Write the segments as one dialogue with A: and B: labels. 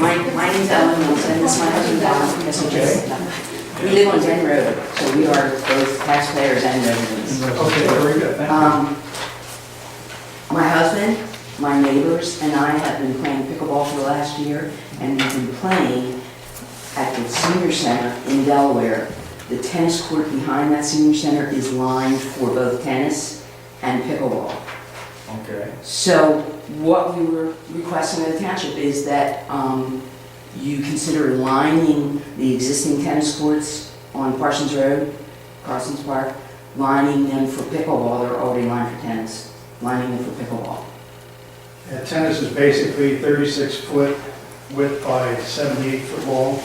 A: My, my name's Ellen Wilson, this is my husband Don, this is Jared. We live on Zen Road, so we are both taxpayers and residents.
B: Okay, very good, thank you.
A: Um, My husband, my neighbors, and I have been playing pickleball for the last year, and we've been playing at the senior center in Delaware. The tennis court behind that senior center is lined for both tennis and pickleball.
B: Okay,
A: So what we were requesting of the township is that um, you consider lining the existing tennis courts on Parsons Road, Parsons Park, lining them for pickleball, they're already lined for tennis, lining them for pickleball.
C: Yeah, tennis is basically 36-foot width by 78-foot long,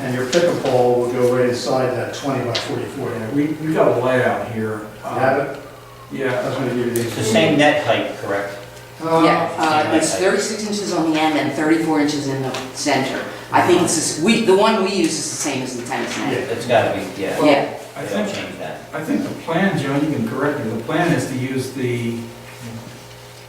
C: and your pickleball will go right inside that 20 by 44.
B: yeah,
C: You
B: we, we got a layout here. Um,
C: have it? I
B: Yeah,
C: was gonna give you these.
D: It's the same net height, correct?
C: Uh,
A: Yeah, uh,
D: Yeah.
A: it's 36 inches on the end and 34 inches in the center. I think it's, this- we, the one we use is the same as the tennis net.
D: It's gotta be, yeah.
A: Yeah,
B: I
D: They don't
B: think,
D: change that.
B: I think the plan, Joan, you can correct me, the plan is to use the,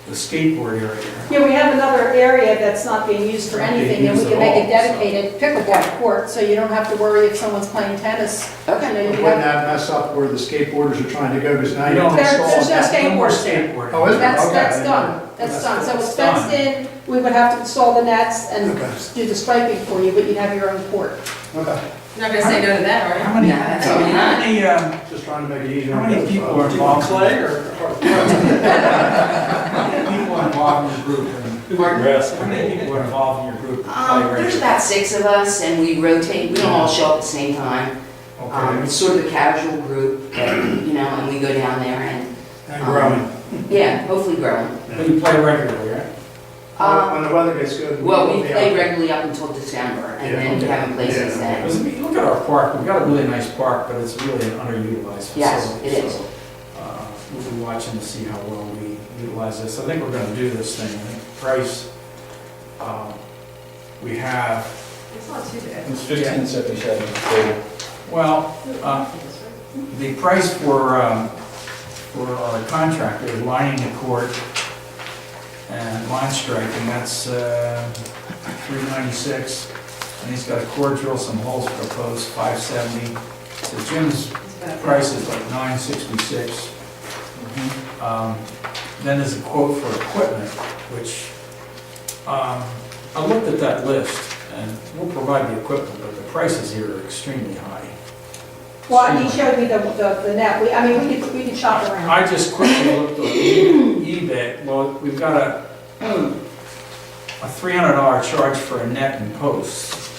B: the skateboard area.
E: Yeah, we have another area that's not being used for anything, and we can make a dedicated pickleball court, so you don't have to worry if someone's playing tennis. You know,
A: okay.
E: you
C: Wouldn't
E: have-
C: that mess up where the skateboarders are trying to go, because now you
B: No.
C: have to
E: There's-
C: install
E: there's no
C: that.
B: No more
E: skateboard there.
B: skateboard.
C: Oh, is it?
E: That's,
C: Okay.
E: that's done, that's done, so it's
B: That's
E: fenced in, we would have to install the nets and
C: Okay.
E: do the striping for you, but you'd have your own court.
C: Okay,
F: You're not gonna say no to that, are you?
B: How many,
A: No, that's only
B: how
A: nine.
B: many, um,
C: just trying to make it easier.
B: how
C: on
B: many
C: both
B: people
C: sides.
B: are involved? Clay or? How many people are involved in your group? and- How many people are involved in your group?
A: Um, There's about six of us and we rotate, we don't all show up at the same time. Um,
B: Okay,
A: It's sort of a casual group, that, you know, and we go down there and,
C: And growing.
A: yeah, hopefully growing.
B: but you play regularly, right?
C: Well, When the weather gets good.
A: Um, Well, we
C: we'll be
A: play
C: out.
A: regularly up until December, and
C: Yeah,
A: then we
C: okay.
A: haven't played since
C: Yeah.
A: then.
B: Because I mean, look at our park, we've got a really nice park, but it's really an underutilized facility.
A: Yes, it is.
B: So, uh, We'll be watching to see how well we utilize this. I think we're gonna do this thing. I think Price, um, we have,
F: It's not too bad.
G: It's fifteen seventy-seven, so
B: well, uh, the price for, um, for uh, our contractor lining the court and line strike, and that's uh, three ninety-six. And he's got a core drill, some holes proposed, five seventy. So Jim's
F: It's about-
B: price is like nine sixty-six. Um, Then there's a quote for equipment, which, um, I looked at that list, and we'll provide the equipment, but the prices here are extremely high.
E: Well, he showed me the, the, the net, we, I mean, we could, we could shop around.
B: I just quickly looked at eBay, well, we've got a, a three hundred dollar charge for a net and posts.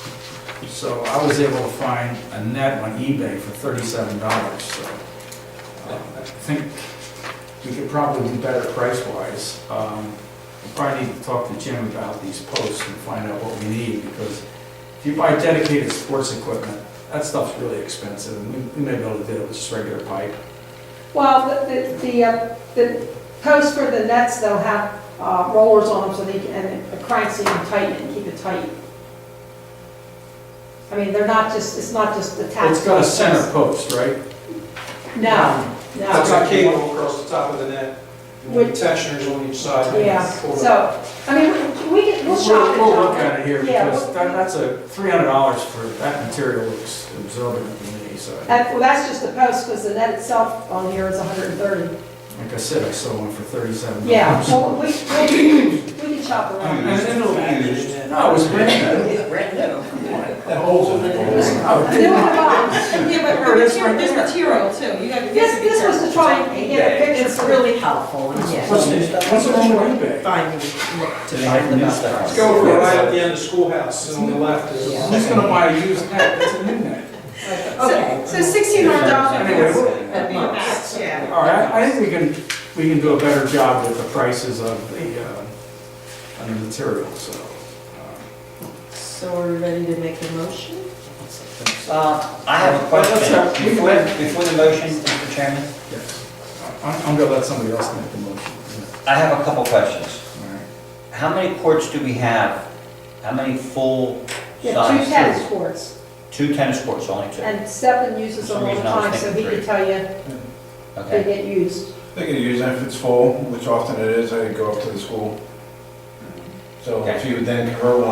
B: So I was able to find a net on eBay for thirty-seven dollars, so uh, I think we could probably do better price-wise. Um, we Probably need to talk to Jim about these posts and find out what we need, because if you buy dedicated sports equipment, that stuff's really expensive, and we- we may be able to do it with just regular pipe.
E: Well, the, the- the, uh, the posts for the nets, they'll have uh, rollers on them so they can, and the cranks so you can tighten it and keep it tight. I mean, they're not just, it's not just the tap.
B: It's got a center post, right?
E: No,
H: It's
E: no,
H: got cable across the top of the net,
E: Would-
H: with tensioners on each side.
E: yeah, so, I mean, we can, we'll shop it.
B: We'll look at it here,
E: Yeah,
B: because
E: we'll-
B: that, that's a, three hundred dollars for, that material looks absorbent to me, so. I-
E: And, well, that's just the post, because the net itself on here is hundred and thirty.
B: Like I said, I sold one for thirty-seven dollars.
E: Yeah, well, we, we, we can shop
B: And
E: around.
B: then it'll be used. No, it was brand new.
G: that holds it.
B: Oh,
E: No, I'm not.
F: Yeah, but
B: Here it is
F: there's,
B: right
F: there's
B: there.
F: material too, you gotta.
E: This, this was to try and get a picture.
F: It's
E: for the-
F: really helpful, and yeah.
B: What's the- what's wrong with eBay?
F: Finding, to
D: They have
F: find the
D: new
F: best.
D: stuff.
F: price.
H: Let's go for right at the end of schoolhouse, and on the left is.
B: Who's gonna buy a used net? It's a new net.
F: So, so sixteen hundred
B: Anyway,
F: dollars.
B: we'll-
F: That'd be a match, yeah.
B: All right, I think we can, we can do a better job with the prices of the, uh, on the material, so. uh,
F: So are we ready to make a motion?
D: Uh, I have a
B: Let's
D: question.
B: have- we can
D: Before,
B: let-
D: before the motion, Mr. Chairman,
B: Yes. I'm, I'm gonna let somebody else make the motion.
D: I have a couple questions.
B: All right.
D: How many courts do we have? How many full
E: Yeah, two
D: size?
E: tennis courts,
D: Two tennis courts, only two?
E: and seven uses them all the
D: For some reason, I was
E: time, so he
D: thinking
E: can
D: three.
E: tell you they
D: Okay.
E: get used.
I: They could use it if it's full, which often it is, I go up to the school. So if you would then convert one